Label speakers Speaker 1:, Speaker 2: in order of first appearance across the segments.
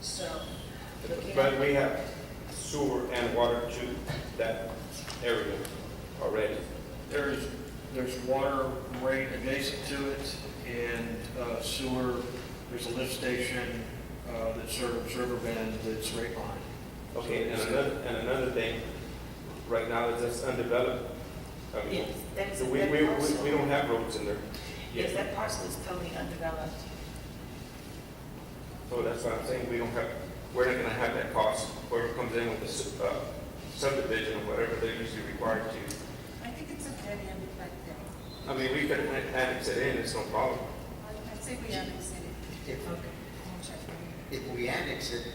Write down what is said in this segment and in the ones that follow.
Speaker 1: So, looking
Speaker 2: But
Speaker 1: at,
Speaker 2: we have sewer and water to that area already.
Speaker 3: There's, there's water right adjacent to it and uh, sewer, there's a lift station uh, that serves Riverbend that's right behind.
Speaker 2: Okay, and another, and another thing, right now is that's undeveloped. I mean,
Speaker 1: yes, that's,
Speaker 2: We, we, we
Speaker 1: that
Speaker 2: we
Speaker 1: parcel,
Speaker 2: don't have roads in there,
Speaker 1: yes, that parcel is totally undeveloped.
Speaker 2: so that's what I'm saying, we don't have, we're not gonna have that cost, whoever comes in with the su- uh, subdivision or whatever they're usually required to.
Speaker 4: I think it's a dead end right there.
Speaker 2: I mean, we could an- annex it in, it's no problem.
Speaker 4: I- I say we annex it.
Speaker 5: If,
Speaker 4: I'll check for you.
Speaker 5: if we annex it,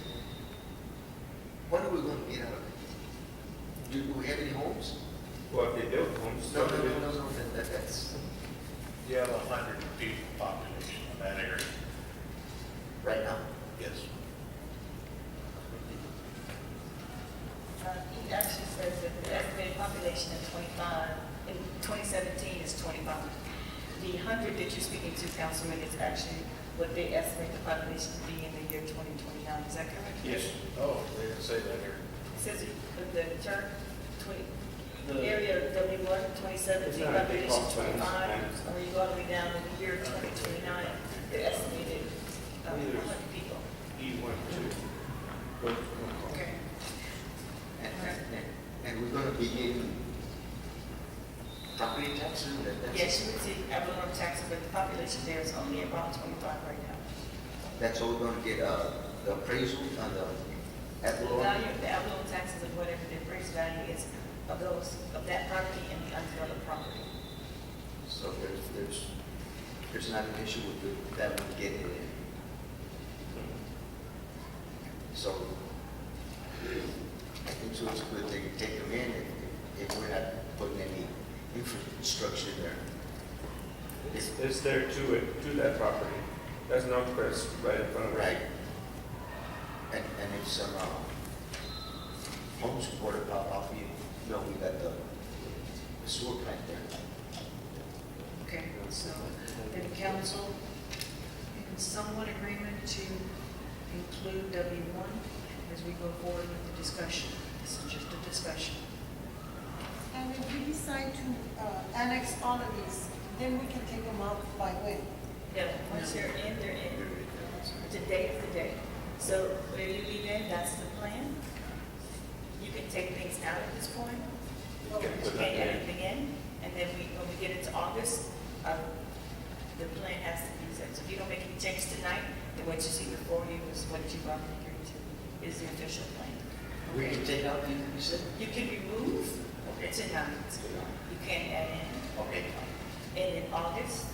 Speaker 5: what are we gonna get out of it? Do we have any homes?
Speaker 2: Well, if they build homes,
Speaker 5: No, no, no,
Speaker 2: subdivision,
Speaker 5: no, no, that- that- that's,
Speaker 6: You have a hundred people population in that area.
Speaker 5: right now.
Speaker 6: Yes.
Speaker 1: Uh, He actually says that the estimated population of 25, in 2017 is 25. The 100 that you're speaking to, Councilman, is actually what they estimate the population to be in the year 2029, is that correct?
Speaker 3: Yes.
Speaker 6: Oh, they didn't say that here.
Speaker 1: It Says that the church, 20,
Speaker 3: The-
Speaker 1: area of W1, 2017
Speaker 2: It's not a
Speaker 1: population
Speaker 2: big cost, but it's
Speaker 1: 25,
Speaker 2: expensive.
Speaker 1: or you go all the way down to the year 2029, the estimated uh,
Speaker 2: Neither.
Speaker 1: 100 people.
Speaker 2: E one, two.
Speaker 1: Okay.
Speaker 5: And, and- and, and we're gonna be getting property taxes, that, that's.
Speaker 1: Yes, you would see abnormal taxes, but the population there is only around 25 right now.
Speaker 5: That's all we're gonna get, uh, the appraisal, uh, the.
Speaker 1: The value of the abnormal taxes of whatever the appraised value is of those, of that property and the undeveloped property.
Speaker 5: So there's, there's, there's not an issue with the- that one getting in. So I think so it's good they can take them in if, if we're not putting any infrastructure there.
Speaker 2: It's, it's there to it, to that property. That's North Crest, right in front of us.
Speaker 5: Right? And, and if some, uh, home supporter pop off, you know, we got the the sewer plant there.
Speaker 4: Okay, so then council, in somewhat agreement to include W one as we go forward with the discussion. This is just a discussion.
Speaker 7: And if we decide to uh, annex all of these, then we can take them out by when?
Speaker 1: Yeah, once they're in, they're in. Today is the day. So where you leave in, that's the plan. You can take things out at this point.
Speaker 2: You can put that
Speaker 1: Okay,
Speaker 2: in.
Speaker 1: everything in, and then we, when we get into August, um, the plan has to be set. So if you don't make any changes tonight, then what you see before you is what you've already agreed to, is the official plan.
Speaker 5: We can take out, you you said?
Speaker 1: You can remove tonight, you can't add in.
Speaker 5: Okay.
Speaker 1: And in August,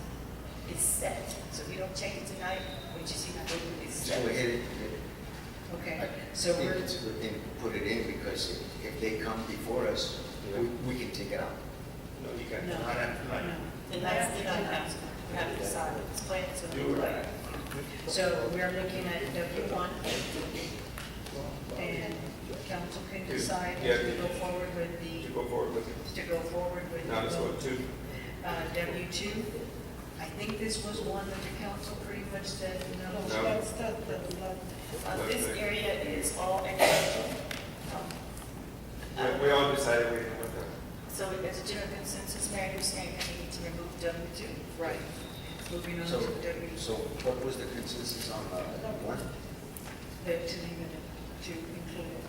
Speaker 1: it's set, so if you don't change it tonight, what you see before you is
Speaker 5: Just
Speaker 1: set.
Speaker 5: go ahead and.
Speaker 4: Okay, so
Speaker 5: So I think
Speaker 4: we're,
Speaker 5: it's good thing to put it in because if- if they come before us, we, we can take it out.
Speaker 2: No, you can't.
Speaker 4: no,
Speaker 6: Not after
Speaker 4: no.
Speaker 6: tonight.
Speaker 1: And that's, you know, that's, you have to decide, it's planned, so.
Speaker 2: You were right.
Speaker 4: So we're looking at W one. And council can decide as we go forward with
Speaker 2: To
Speaker 4: the,
Speaker 2: go forward with it.
Speaker 4: to go forward with.
Speaker 2: Now it's
Speaker 4: the- Uh,
Speaker 2: what, two?
Speaker 4: W two. I think this was one that the council pretty much said no.
Speaker 7: No,
Speaker 2: No.
Speaker 7: That's the, the, the-
Speaker 1: Uh, this area is all agricultural. Um,
Speaker 2: We- We all decided we didn't want that.
Speaker 1: So there's a general consensus, Mayor, you're saying that we need to remove W two?
Speaker 4: Right. Moving on to
Speaker 5: So,
Speaker 4: W,
Speaker 5: so what was the consensus on, uh, one?
Speaker 4: that to leave it, to include it.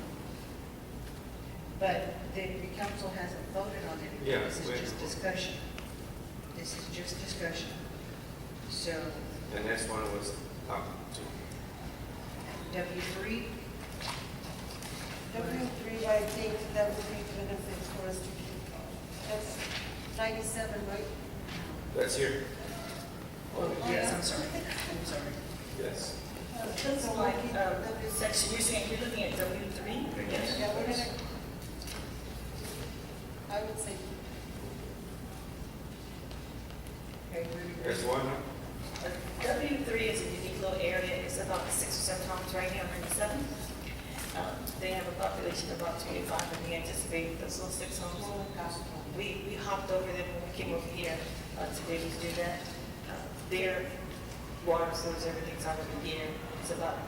Speaker 4: But the, the council hasn't voted on it.
Speaker 2: Yeah,
Speaker 4: This
Speaker 2: we-
Speaker 4: is just discussion. This is just discussion. So
Speaker 2: The next one was, um, two.
Speaker 4: W three,
Speaker 7: W three, I think that would be benefits for us to keep. That's ninety-seven, right?
Speaker 2: that's here,
Speaker 4: oh, yes, I'm sorry, I'm sorry.
Speaker 2: yes.
Speaker 7: Uh, That's Uh,
Speaker 1: So
Speaker 7: all I
Speaker 1: like,
Speaker 7: keep.
Speaker 1: um, section, you're saying you're looking at W three?
Speaker 7: Yeah, we're gonna. I would say,
Speaker 4: Okay, we're-
Speaker 2: There's one, huh?
Speaker 1: W three is a unique little area, it's about six or seven homes right now, maybe seven. Um, They have a population of about twenty-five, and we anticipate those little six homes. We, we hopped over them when we came over here uh, to be able to do that. Uh, Their water source, everything's already here, it's about